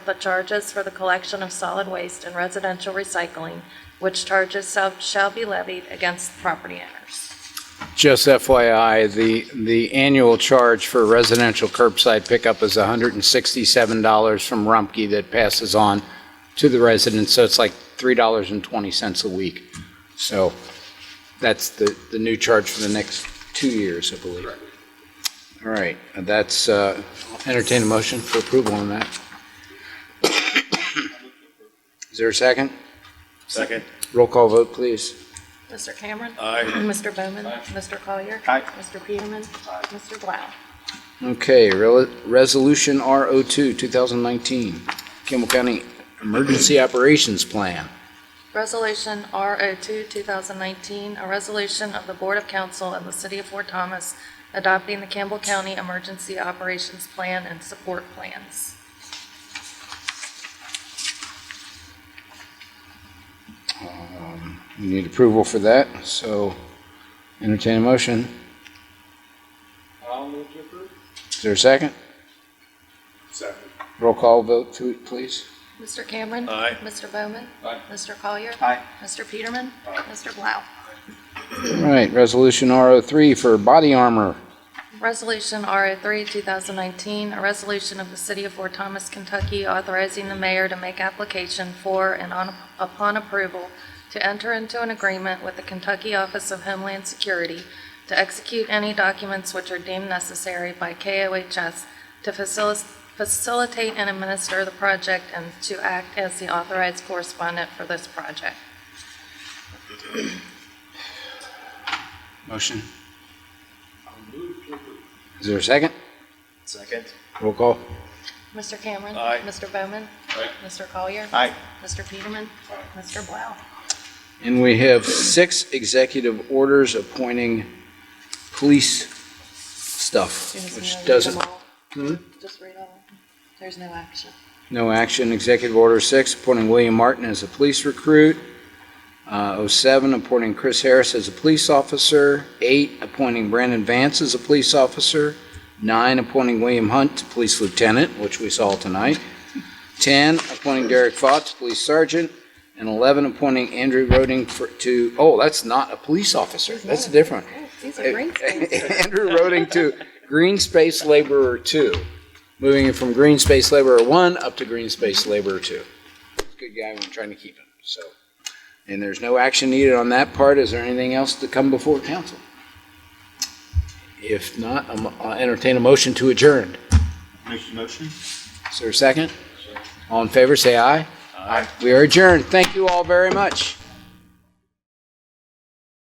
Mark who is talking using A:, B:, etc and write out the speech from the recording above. A: the charges for the collection of solid waste and residential recycling, which charges shall- shall be levied against property owners.
B: Just FYI, the, the annual charge for residential curbside pickup is $167 from Rumpke that passes on to the residents, so it's like $3.20 a week. So that's the, the new charge for the next two years, I believe. All right, that's, uh, entertain a motion for approval on that. Is there a second?
C: Second.
B: Roll call vote, please.
A: Mr. Cameron.
C: Aye.
A: Mr. Bowman. Mr. Collier.
C: Aye.
A: Mr. Peterman. Mr. Blau.
B: Okay, rel- Resolution RO2, 2019, Kimball County Emergency Operations Plan.
A: Resolution RO2, 2019, a resolution of the Board of Council and the City of Fort Thomas adopting the Campbell County Emergency Operations Plan and Support Plans.
B: Um, We need approval for that, so entertain a motion.
C: I'll move to approve.
B: Is there a second?
C: Second.
B: Roll call vote, th- please.
A: Mr. Cameron.
C: Aye.
A: Mr. Bowman.
C: Aye.
A: Mr. Collier.
C: Aye.
A: Mr. Peterman. Mr. Blau.
B: All right, Resolution RO3 for body armor.
A: Resolution RO3, 2019, a resolution of the City of Fort Thomas, Kentucky, authorizing the mayor to make application for and on- upon approval to enter into an agreement with the Kentucky Office of Homeland Security to execute any documents which are deemed necessary by KOHS to facilis- facilitate and administer the project and to act as the authorized correspondent for this project.
B: Motion. Is there a second?
C: Second.
B: Roll call.
A: Mr. Cameron.
C: Aye.
A: Mr. Bowman.
C: Aye.
A: Mr. Collier.
C: Aye.
A: Mr. Peterman. Mr. Blau.
B: And we have six executive orders appointing police stuff,
A: Soon as we know,
B: which
A: read
B: doesn't Hmm?
A: them all. Just read all. There's no action.
B: No action. Executive Order 6, appointing William Martin as a police recruit. Uh, 07, appointing Chris Harris as a police officer. 8, appointing Brandon Vance as a police officer. 9, appointing William Hunt to police lieutenant, which we saw tonight. 10, appointing Derek Fox, police sergeant. And 11, appointing Andrew Roding for, to, oh, that's not a police officer. That's different.
A: Oh, These are great things.
B: Andrew Roding to Green Space Laborer Two, moving it from Green Space Laborer One up to Green Space Laborer Two. Good guy, I'm trying to keep him, so. And there's no action needed on that part. Is there anything else to come before council? If not, I'm- I'll entertain a motion to adjourn.
C: Make the motion.
B: Is there a second? All in favor, say aye. Aye. We are adjourned. Thank you all very much.